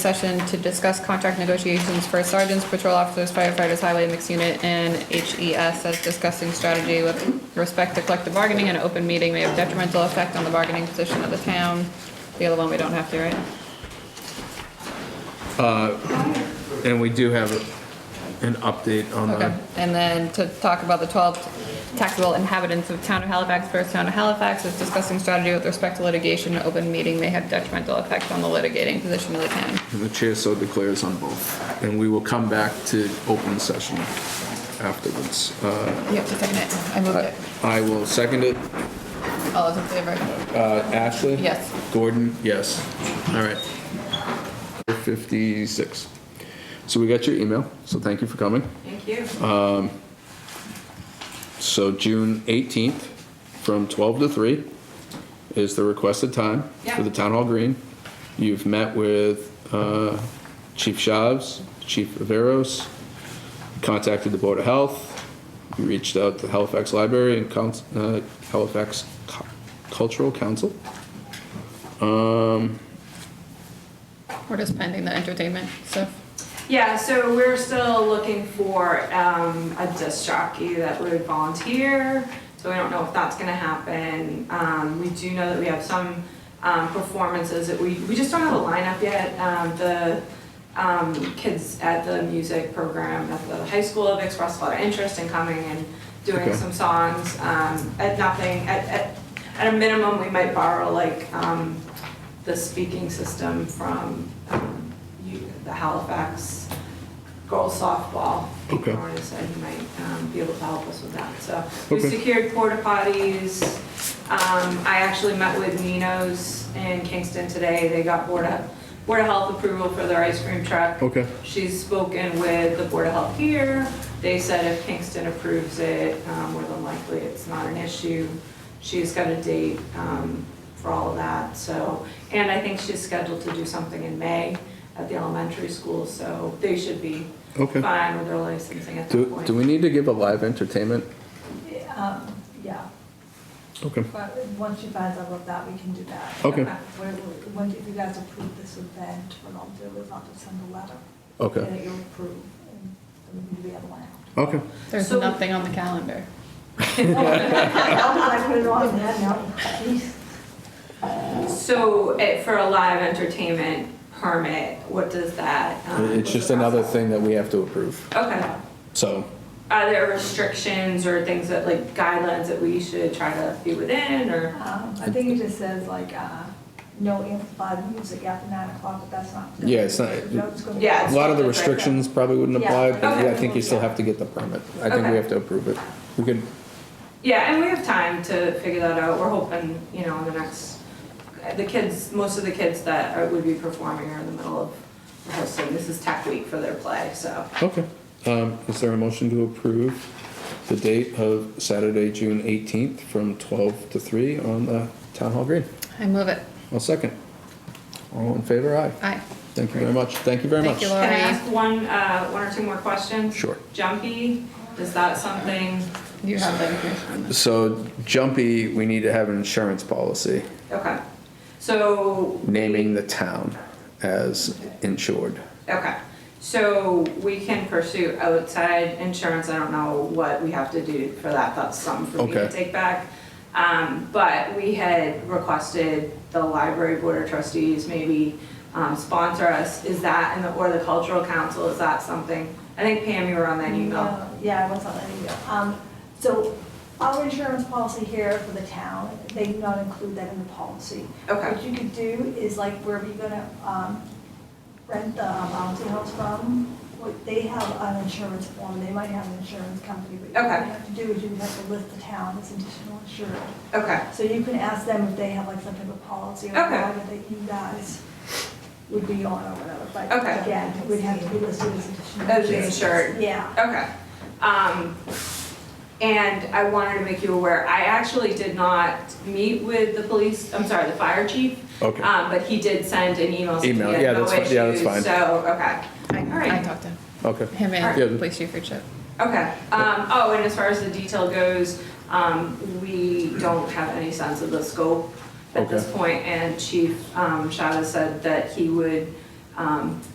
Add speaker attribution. Speaker 1: session to discuss contract negotiations for sergeants, patrol officers, firefighters, highway mixed unit, and HES as discussing strategy with respect to collective bargaining. An open meeting may have detrimental effect on the bargaining position of the town. The other one, we don't have to, right?
Speaker 2: And we do have an update on
Speaker 1: Okay,
Speaker 2: the,
Speaker 1: and then to talk about the 12 taxable inhabitants of town of Halifax versus town of Halifax is discussing strategy with respect to litigation. An open meeting may have detrimental effect on the litigating position of the town.
Speaker 2: the chair so declares on both. And we will come back to open session afterwards. Uh,
Speaker 1: You have to second it. I moved it.
Speaker 2: I will second it.
Speaker 1: All those in favor?
Speaker 2: Uh, Ashley?
Speaker 1: Yes.
Speaker 2: Gordon? Yes. All right. 56. So we got your email, so thank you for coming.
Speaker 3: Thank you.
Speaker 2: So June 18th, from 12 to 3 is the requested time for the
Speaker 3: Yeah.
Speaker 2: Town Hall Green. You've met with uh, Chief Shaves, Chief Averos, contacted the Board of Health, you reached out to Halifax Library and Couns- uh, Halifax Cu- Cultural Council.
Speaker 1: We're just pending the entertainment stuff.
Speaker 3: Yeah, so we're still looking for um, a disc jockey that would volunteer, so we don't know if that's gonna happen. Um, We do know that we have some um, performances that we, we just don't have a lineup yet. Um, The um, kids at the music program at the high school have expressed a lot of interest in coming and
Speaker 2: Okay.
Speaker 3: doing some songs. um, At nothing, at, at, at a minimum, we might borrow like um, the speaking system from um, you- the Halifax girls softball.
Speaker 2: Okay.
Speaker 3: Lauren said he might um, be able to help us with that, so. We
Speaker 2: Okay.
Speaker 3: secured porta potties. Um, I actually met with Nino's in Kingston today. They got Board of, Board of Health approval for their ice cream truck.
Speaker 2: Okay.
Speaker 3: She's spoken with the Board of Health here. They said if Kingston approves it, um, more than likely it's not an issue. She's got a date um, for all of that, so, and I think she's scheduled to do something in May at the elementary school, so they should be
Speaker 2: Okay.
Speaker 3: fine with their licensing at that
Speaker 2: Do,
Speaker 3: point.
Speaker 2: do we need to give a live entertainment?
Speaker 4: Um, Yeah,
Speaker 2: Okay.
Speaker 4: but once you guys are with that, we can do that.
Speaker 2: Okay.
Speaker 4: Where- When, if you guys approve this event, what I'll do is I'll just send a letter.
Speaker 2: Okay.
Speaker 4: That you'll approve, and then we can do the other one out.
Speaker 2: Okay.
Speaker 1: There's
Speaker 3: So-
Speaker 1: nothing on the calendar.
Speaker 4: How did I put it on there now? Jeez.
Speaker 3: So eh, for a live entertainment permit, what does that? um,
Speaker 2: It's just another thing that we have to approve.
Speaker 3: Okay.
Speaker 2: So,
Speaker 3: Are there restrictions or things that, like guidelines that we should try to be within or?
Speaker 4: Um, I think it just says like, uh, no amplified music after nine o'clock, but that's not.
Speaker 2: Yeah, it's not-
Speaker 4: No, it's gonna be-
Speaker 3: Yeah,
Speaker 2: a
Speaker 3: it's-
Speaker 2: lot of the restrictions probably wouldn't apply, but
Speaker 3: Okay.
Speaker 2: yeah, I think you still have to get the permit. I think we
Speaker 3: Okay.
Speaker 2: have to approve it. We could,
Speaker 3: Yeah, and we have time to figure that out. We're hoping, you know, in the next, the kids, most of the kids that are- would be performing are in the middle of rehearsing. This is tech week for their play, so.
Speaker 2: okay. Um, is there a motion to approve the date of Saturday, June eighteenth, from twelve to three on the town hall green?
Speaker 1: I move it.
Speaker 2: I'll second. All in favor, aye.
Speaker 1: Aye.
Speaker 2: Thank you very much. Thank you very
Speaker 1: Thank
Speaker 2: much.
Speaker 1: you, Laura.
Speaker 3: Can I ask one, uh, one or two more questions?
Speaker 2: Sure.
Speaker 3: Jumpy, is that something?
Speaker 1: You have the information on this.
Speaker 2: So Jumpy, we need to have an insurance policy
Speaker 3: Okay, so.
Speaker 2: naming the town as insured.
Speaker 3: Okay, so we can pursue outside insurance, I don't know what we have to do for that, that's something for me to
Speaker 2: Okay.
Speaker 3: take back. Um, but we had requested the library board of trustees maybe, um, sponsor us, is that, and the, or the cultural council, is that something? I think Pam, you were on that email.
Speaker 4: No, Yeah, I was on that email. Um, so our insurance policy here for the town, they do not include that in the policy.
Speaker 3: Okay.
Speaker 4: What you could do is like wherever you're gonna, um, rent the bouncy house from, what, they have an insurance form, they might have an insurance company. but What
Speaker 3: Okay.
Speaker 4: you have to do is you have to list the town as additional insured.
Speaker 3: Okay,
Speaker 4: So you can ask them if they have like some type of policy or
Speaker 3: Okay.
Speaker 4: whatever that you guys would be on or whatever. But
Speaker 3: Okay.
Speaker 4: Again, it would have to be listed as additional.
Speaker 3: As insured.
Speaker 4: Yeah.
Speaker 3: Okay. Um, and I wanted to make you aware, I actually did not meet with the police, I'm sorry, the fire chief.
Speaker 2: Okay.
Speaker 3: Um, but he did send an email. saying
Speaker 2: Email,
Speaker 3: he had
Speaker 2: yeah,
Speaker 3: no
Speaker 2: that's fine- yeah, that's
Speaker 3: issues,
Speaker 2: fine.
Speaker 3: So, okay,
Speaker 1: I I talked to him.
Speaker 2: Okay.
Speaker 1: Him
Speaker 2: Yeah.
Speaker 1: and police chief Richard.
Speaker 3: okay. Um, oh, and as far as the detail goes, um, we don't have any sense of the scope at this
Speaker 2: Okay.
Speaker 3: point, And Chief, um, Chavez said that he would, um, um,